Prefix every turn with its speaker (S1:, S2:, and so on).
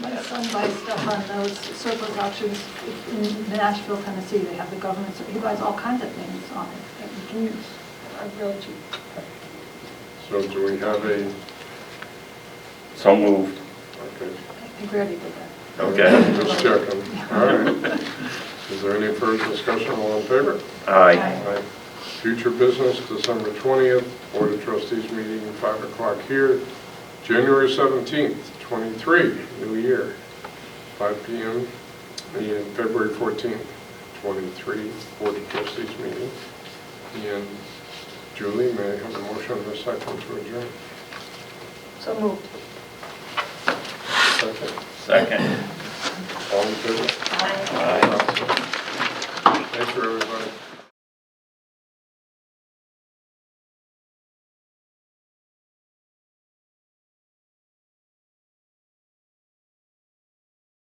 S1: son buys stuff on those surplus auctions in Nashville, Tennessee, they have the government, so he buys all kinds of things on it that you can use, are really cheap.
S2: So do we have a,
S3: So moved.
S2: okay.
S1: I think we already did that.
S3: Okay.
S2: Just checking. All right. Is there any further discussion? All in favor?
S3: Aye.
S1: Aye.
S2: Future business, December 20th, Board of Trustees meeting, 5 o'clock here. January 17th, 23, new year, 5 PM. And February 14th, 23, Board of Trustees meeting. And Julie, may I have a motion on this item to adjourn?
S1: So moved.
S2: Second.
S3: Second.
S2: All in favor?
S3: Aye.
S2: Thank you, everybody.